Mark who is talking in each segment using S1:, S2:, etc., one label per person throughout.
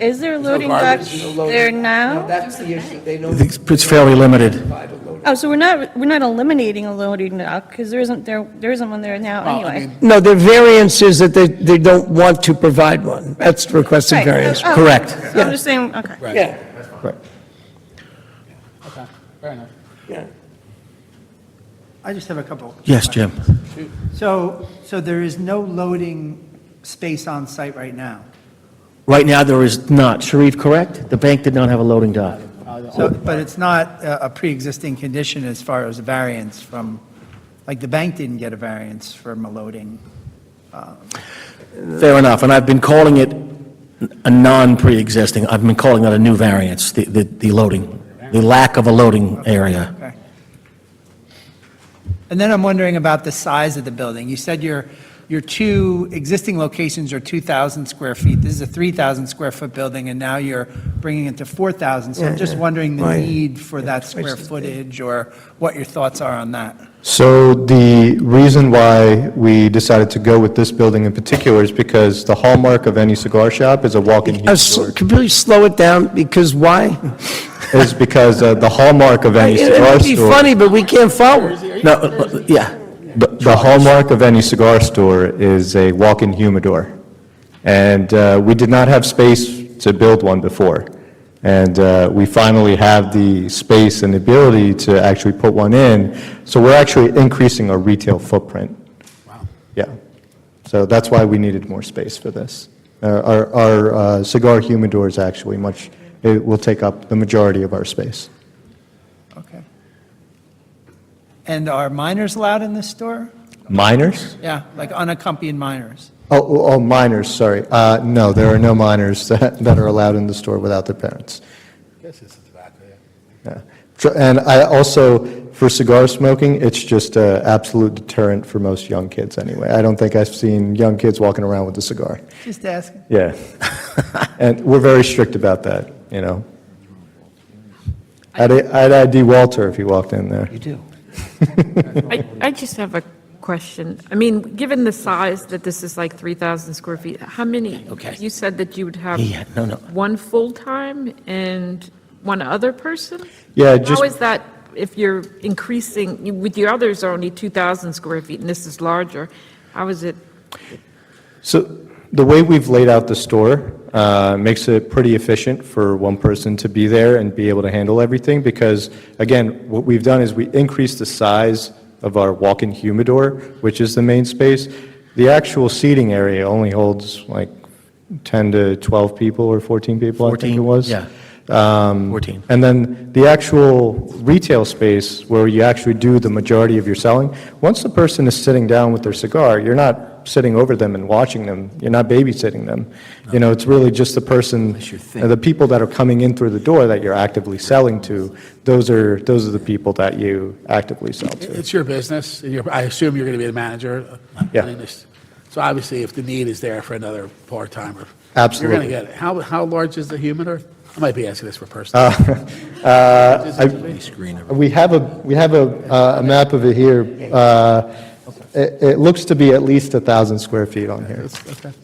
S1: Is there loading
S2: garbage.
S1: docks
S2: No loading.
S1: there
S2: Now,
S1: now?
S2: that's the issue, they don't
S3: I think It's fairly limited.
S2: provide a loader.
S1: Oh, so we're not, we're not eliminating a loading dock, because there isn't, there, there isn't one there now
S4: Well, I
S1: anyway.
S4: mean,
S5: No, the variance is that they, they don't want to provide one. That's requested
S1: Right, oh,
S5: variance.
S1: oh,
S3: Correct.
S1: so I'm just saying, okay.
S5: Yeah.
S4: Okay, fair enough.
S6: I just have a couple.
S3: Yes, Jim.
S6: So, so there is no loading space on site right now.
S3: Right now, there is not. Sharif, correct? The bank did not have a loading dock.
S6: So, but it's not a, a pre-existing condition as far as a variance from, like, the bank didn't get a variance from a loading.
S3: Fair enough, and I've been calling it a non-pre-existing, I've been calling that a new variance, the, the the loading, the lack of a loading area.
S6: Okay. And then I'm wondering about the size of the building. You said your, your two existing locations are 2,000 square feet. This is a 3,000 square foot building, and now you're bringing it to 4,000. So I'm just wondering the
S5: Why-
S6: need for that square
S5: the-
S6: footage or what your thoughts are on that.
S7: So the reason why we decided to go with this building in particular is because the hallmark of any cigar shop is a walk-in
S5: Uh,
S7: huge
S5: so-
S7: door.
S5: Could you slow it down? Because why?
S7: Is because uh, the hallmark of any
S5: It
S7: cigar
S5: would be
S7: store,
S5: funny, but we can't follow.
S3: No, uh, yeah,
S7: the the hallmark of any cigar store is a walk-in humidor. And uh, we did not have space to build one before. And uh, we finally have the space and ability to actually put one in. So we're actually increasing our retail footprint. Yeah. So that's why we needed more space for this. Uh, Our our uh, cigar humidor is actually much, it will take up the majority of our space.
S6: Okay. And are minors allowed in this store?
S7: Minors?
S6: Yeah, like unaccompanied minors.
S7: Oh, oh, oh, minors, sorry. Uh, No, there are no minors that that are allowed in the store without their parents.
S4: Guess it's a tobacco, yeah.
S7: Yeah. Tr- And I also, for cigar smoking, it's just an absolute deterrent for most young kids anyway. I don't think I've seen young kids walking around with a cigar.
S6: Just asking.
S7: Yeah. And we're very strict about that, you know? I'd, I'd ID Walter if he walked in there.
S8: I, I just have a question. I mean, given the size that this is like 3,000 square feet, how many?
S3: Okay.
S8: You said that you would have.
S3: Yeah, no, no.
S8: One full-time and one other person?
S7: Yeah,
S8: How
S7: just-
S8: is that, if you're increasing, you- with your others are only 2,000 square feet and this is larger, how is it?
S7: So the way we've laid out the store uh, makes it pretty efficient for one person to be there and be able to handle everything, because, again, what we've done is we increased the size of our walk-in humidor, which is the main space. The actual seating area only holds like 10 to 12 people or 14 people, I think it
S3: 14,
S7: was.
S3: yeah.
S7: Um,
S3: 14.
S7: And then the actual retail space where you actually do the majority of your selling, once the person is sitting down with their cigar, you're not sitting over them and watching them. You're not babysitting them. You know, it's really just the person, the people that are coming in through the door that you're actively selling to, those are, those are the people that you actively sell to.
S4: It's your business, and you're, I assume you're going to be the manager. uh,
S7: Yeah.
S4: running this. So obviously, if the need is there for another part-timer. You're
S7: Absolutely.
S4: going to get it. How, how large is the humidor? I might be asking this for personal.
S7: Uh. We have a, we have a, uh, a map of it here. Uh, It, it looks to be at least 1,000 square feet on here.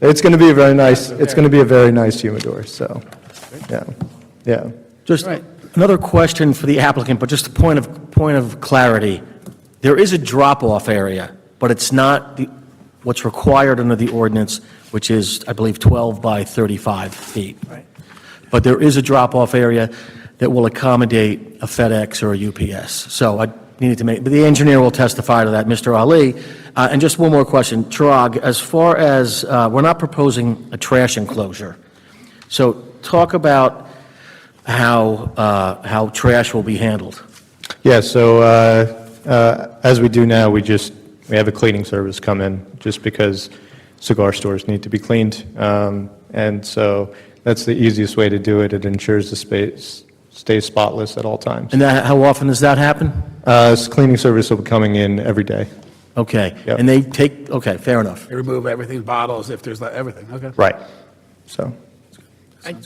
S7: It's going to be a very nice, it's going to be a very nice humidor, so, yeah, yeah.
S3: Just another question for the applicant, but just a point of, point of clarity. There is a drop-off area, but it's not the- what's required under the ordinance, which is, I believe, 12 by 35 feet. Right. But there is a drop-off area that will accommodate a FedEx or a UPS. So I needed to make, but the engineer will testify to that, Mr. Ali. Uh, And just one more question. Chirag, as far as, uh, we're not proposing a trash enclosure. So talk about how, uh, how trash will be handled.
S7: Yeah, so uh, uh, as we do now, we just, we have a cleaning service come in, just because cigar stores need to be cleaned. Um, And so that's the easiest way to do it. It ensures the space stays spotless at all times.
S3: And that, how often does that happen?
S7: Uh, s- Cleaning service will be coming in every day.
S3: Okay.
S7: Yep.
S3: And they take, okay, fair enough.
S4: They remove everything, bottles, if there's, like, everything, okay?
S7: Right. So,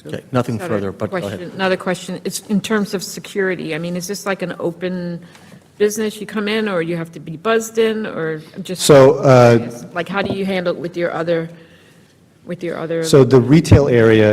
S3: Okay, Nothing
S8: Another
S3: further, but go
S8: question-
S3: ahead.
S8: Another question, it's in terms of security, I mean, is this like an open business, you come in, or you have to be buzzed in, or I'm just?
S7: So, uh,
S8: Like, how do you handle it with your other, with your other?
S7: so the retail area